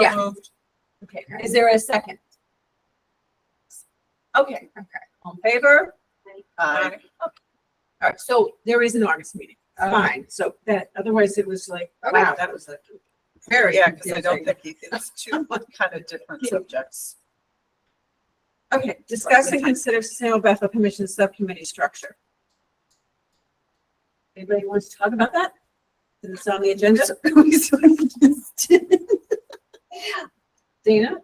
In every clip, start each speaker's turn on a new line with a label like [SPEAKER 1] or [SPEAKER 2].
[SPEAKER 1] Yeah.
[SPEAKER 2] moved.
[SPEAKER 1] Okay, is there a second? Okay, okay, on favor?
[SPEAKER 2] Aye.
[SPEAKER 1] All right, so there is an August meeting,
[SPEAKER 2] Oh.
[SPEAKER 1] fine, so that, otherwise it was like, wow, that was like very
[SPEAKER 2] Yeah, because I don't
[SPEAKER 1] confusing.
[SPEAKER 2] think he- it's two kind of different subjects.
[SPEAKER 1] Okay, discuss and consider Sustainable Bethel Commission Subcommittee structure. Anybody wants to talk about that? Is it on the agenda? Dana?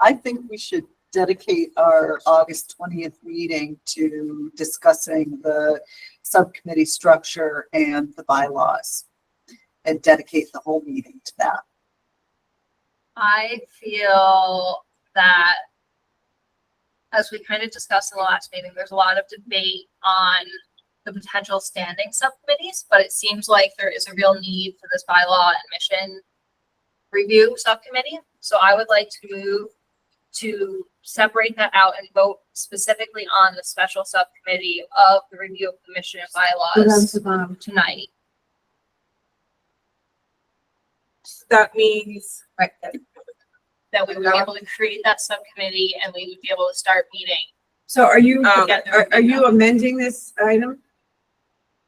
[SPEAKER 3] I think we should dedicate our August twentieth meeting to discussing the subcommittee structure and the bylaws. And dedicate the whole meeting to that.
[SPEAKER 4] I feel that as we kind of discussed in the last meeting, there's a lot of debate on the potential standing subcommittees, but it seems like there is a real need for this bylaw and mission review subcommittee. So I would like to move to separate that out and vote specifically on the special subcommittee of the review of the mission and bylaws tonight.
[SPEAKER 2] That means.
[SPEAKER 1] Right,
[SPEAKER 4] That we would be able to create that subcommittee and we would be able to start meeting
[SPEAKER 1] so are you,
[SPEAKER 2] Um,
[SPEAKER 1] are, are you amending this item?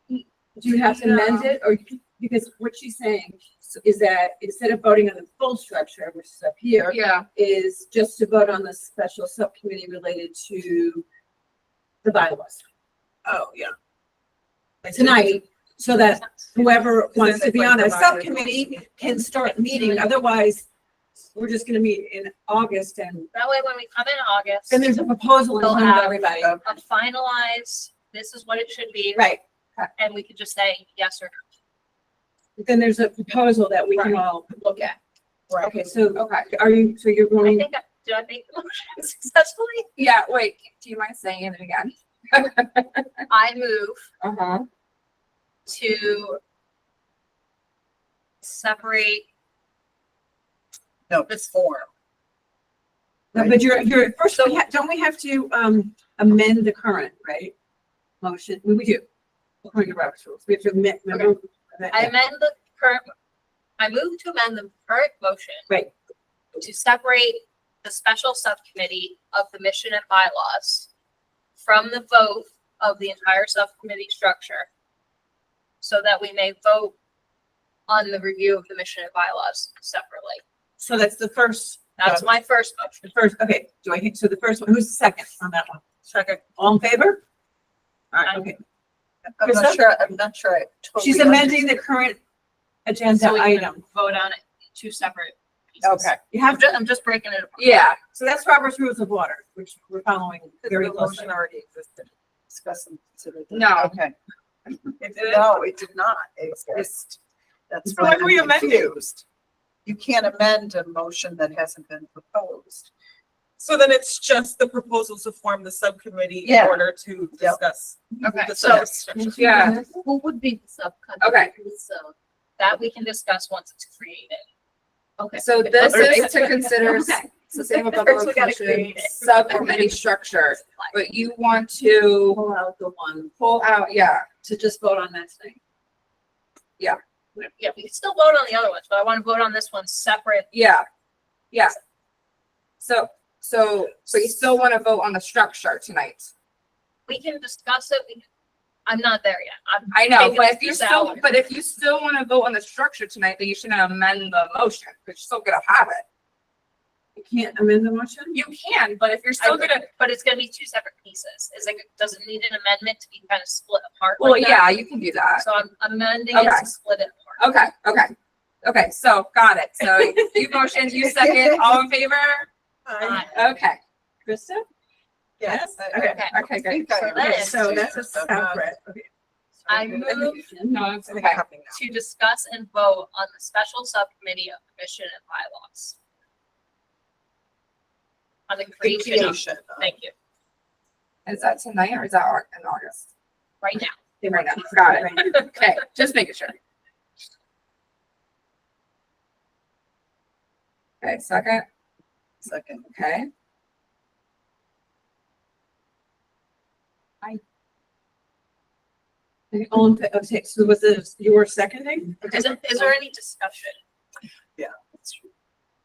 [SPEAKER 1] Do you have to amend
[SPEAKER 2] No.
[SPEAKER 1] it, or, because what she's saying is that instead of voting on the full structure, which is up here,
[SPEAKER 2] Yeah.
[SPEAKER 1] is just to vote on the special subcommittee related to the bylaws
[SPEAKER 2] Oh, yeah.
[SPEAKER 1] tonight, so that whoever wants to be on a
[SPEAKER 2] Because it's like the bylaws.
[SPEAKER 1] subcommittee can start meeting, otherwise we're just gonna meet in August and,
[SPEAKER 4] That way, when we come in August,
[SPEAKER 1] and there's a proposal in front of everybody.
[SPEAKER 4] I'll finalize, this is what it should be,
[SPEAKER 1] Right,
[SPEAKER 4] and we could just say yes or no.
[SPEAKER 1] then there's a proposal that we can
[SPEAKER 2] Right.
[SPEAKER 1] all look at.
[SPEAKER 2] Right.
[SPEAKER 1] Okay, so
[SPEAKER 5] Okay,
[SPEAKER 1] are you, so you're
[SPEAKER 4] I
[SPEAKER 1] going,
[SPEAKER 4] think, I- did I make the motion successfully?
[SPEAKER 5] yeah, wait, do you mind saying it again?
[SPEAKER 4] I move
[SPEAKER 5] Uh-huh.
[SPEAKER 4] to separate,
[SPEAKER 3] No, it's form.
[SPEAKER 1] no, but you're, you're, first, we ha- don't we have to, um, amend the current, right? Motion, we we do. According to Robert's rules, we have to amend, remember?
[SPEAKER 4] I amend the current, I move to amend the current motion.
[SPEAKER 1] Right.
[SPEAKER 4] To separate the special subcommittee of the mission and bylaws from the vote of the entire subcommittee structure so that we may vote on the review of the mission and bylaws separately.
[SPEAKER 1] So that's the first
[SPEAKER 4] That's
[SPEAKER 1] Got
[SPEAKER 4] my first
[SPEAKER 1] The
[SPEAKER 4] motion.
[SPEAKER 1] first, okay, do I, hit- so the first one, who's the second on that one? Second. All in favor? All right,
[SPEAKER 4] Aye.
[SPEAKER 1] okay.
[SPEAKER 3] I'm
[SPEAKER 1] Krista?
[SPEAKER 3] not sure, I'm not sure. I totally
[SPEAKER 1] She's amending the current agenda
[SPEAKER 4] So we can
[SPEAKER 1] item.
[SPEAKER 4] Vote on it, in two separate pieces.
[SPEAKER 3] Okay.
[SPEAKER 1] You
[SPEAKER 4] I'm
[SPEAKER 1] have
[SPEAKER 4] just,
[SPEAKER 1] to,
[SPEAKER 4] I'm just breaking it apart.
[SPEAKER 5] Yeah,
[SPEAKER 1] so that's Robert's rules of order, which we're following very closely.
[SPEAKER 2] already existed.
[SPEAKER 3] Discuss and consider. that.
[SPEAKER 5] No.
[SPEAKER 3] Okay.
[SPEAKER 2] It
[SPEAKER 3] No, it did not exist. That's
[SPEAKER 2] So
[SPEAKER 3] why
[SPEAKER 2] what are we
[SPEAKER 3] I'm
[SPEAKER 2] amending?
[SPEAKER 3] confused. You can't amend a motion that hasn't been proposed.
[SPEAKER 2] So then it's just the proposals to form the subcommittee in
[SPEAKER 3] Yeah.
[SPEAKER 2] order to
[SPEAKER 3] Yep.
[SPEAKER 2] discuss.
[SPEAKER 4] Okay,
[SPEAKER 2] the
[SPEAKER 4] so
[SPEAKER 2] subject.
[SPEAKER 5] yeah,
[SPEAKER 4] who would be the subcommittee?
[SPEAKER 5] Okay.
[SPEAKER 4] So that we can discuss once it's created. Okay.
[SPEAKER 5] so this
[SPEAKER 1] Okay.
[SPEAKER 5] is to consider s-
[SPEAKER 1] Okay.
[SPEAKER 5] sustainable
[SPEAKER 4] First
[SPEAKER 5] Buffalo
[SPEAKER 4] we gotta
[SPEAKER 5] Commission
[SPEAKER 4] create it.
[SPEAKER 5] subcommittee structure, but you want to
[SPEAKER 1] Pull out the one
[SPEAKER 5] pull out, yeah,
[SPEAKER 1] to just vote on that thing.
[SPEAKER 4] Yeah, we can still vote on the other ones, but I want to vote on this one separate.
[SPEAKER 5] yeah, yeah. So, so, so you still want to vote on the structure tonight?
[SPEAKER 4] We can discuss it, we, can- I'm not there yet. I'm,
[SPEAKER 5] I know,
[SPEAKER 4] Taking
[SPEAKER 5] but if you
[SPEAKER 4] this
[SPEAKER 5] still,
[SPEAKER 4] out.
[SPEAKER 5] but if you still want to vote on the structure tonight, then you shouldn't amend the motion, because you're still gonna have it.
[SPEAKER 1] You can't amend the motion?
[SPEAKER 5] You can, but if you're
[SPEAKER 4] I'm
[SPEAKER 5] still gonna
[SPEAKER 4] gonna, but it's gonna be two separate pieces. It's like, does it need an amendment to be kind of split apart?
[SPEAKER 5] Well,
[SPEAKER 4] like that?
[SPEAKER 5] yeah, you can do that.
[SPEAKER 4] So I'm amending it
[SPEAKER 5] Okay.
[SPEAKER 4] to split it apart.
[SPEAKER 5] Okay, okay. Okay, so got it. So you motion, you second, all in favor?
[SPEAKER 4] Aye.
[SPEAKER 5] Okay,
[SPEAKER 1] Krista?
[SPEAKER 2] Yes.
[SPEAKER 1] Okay.
[SPEAKER 4] Ah, Okay,
[SPEAKER 5] oh, okay, good.
[SPEAKER 3] Think I
[SPEAKER 4] So that
[SPEAKER 1] Okay,
[SPEAKER 4] is-
[SPEAKER 1] So that's a
[SPEAKER 3] understood.
[SPEAKER 1] separate. okay.
[SPEAKER 4] I
[SPEAKER 1] And
[SPEAKER 4] move-
[SPEAKER 1] then-
[SPEAKER 5] No, it's
[SPEAKER 2] I think I'm
[SPEAKER 5] okay.
[SPEAKER 2] helping now.
[SPEAKER 4] to discuss and vote on the special subcommittee of the mission and bylaws. On the
[SPEAKER 2] The
[SPEAKER 4] creation of,
[SPEAKER 2] creation of-
[SPEAKER 4] thank you,
[SPEAKER 5] Is that tonight or is that Au- in August?
[SPEAKER 4] right now.
[SPEAKER 5] Right now, got it. Okay, just making sure. Okay, second,
[SPEAKER 3] Second.
[SPEAKER 5] okay.
[SPEAKER 1] All in, fa- okay, so was it your seconding?
[SPEAKER 4] Is, there- is there any discussion?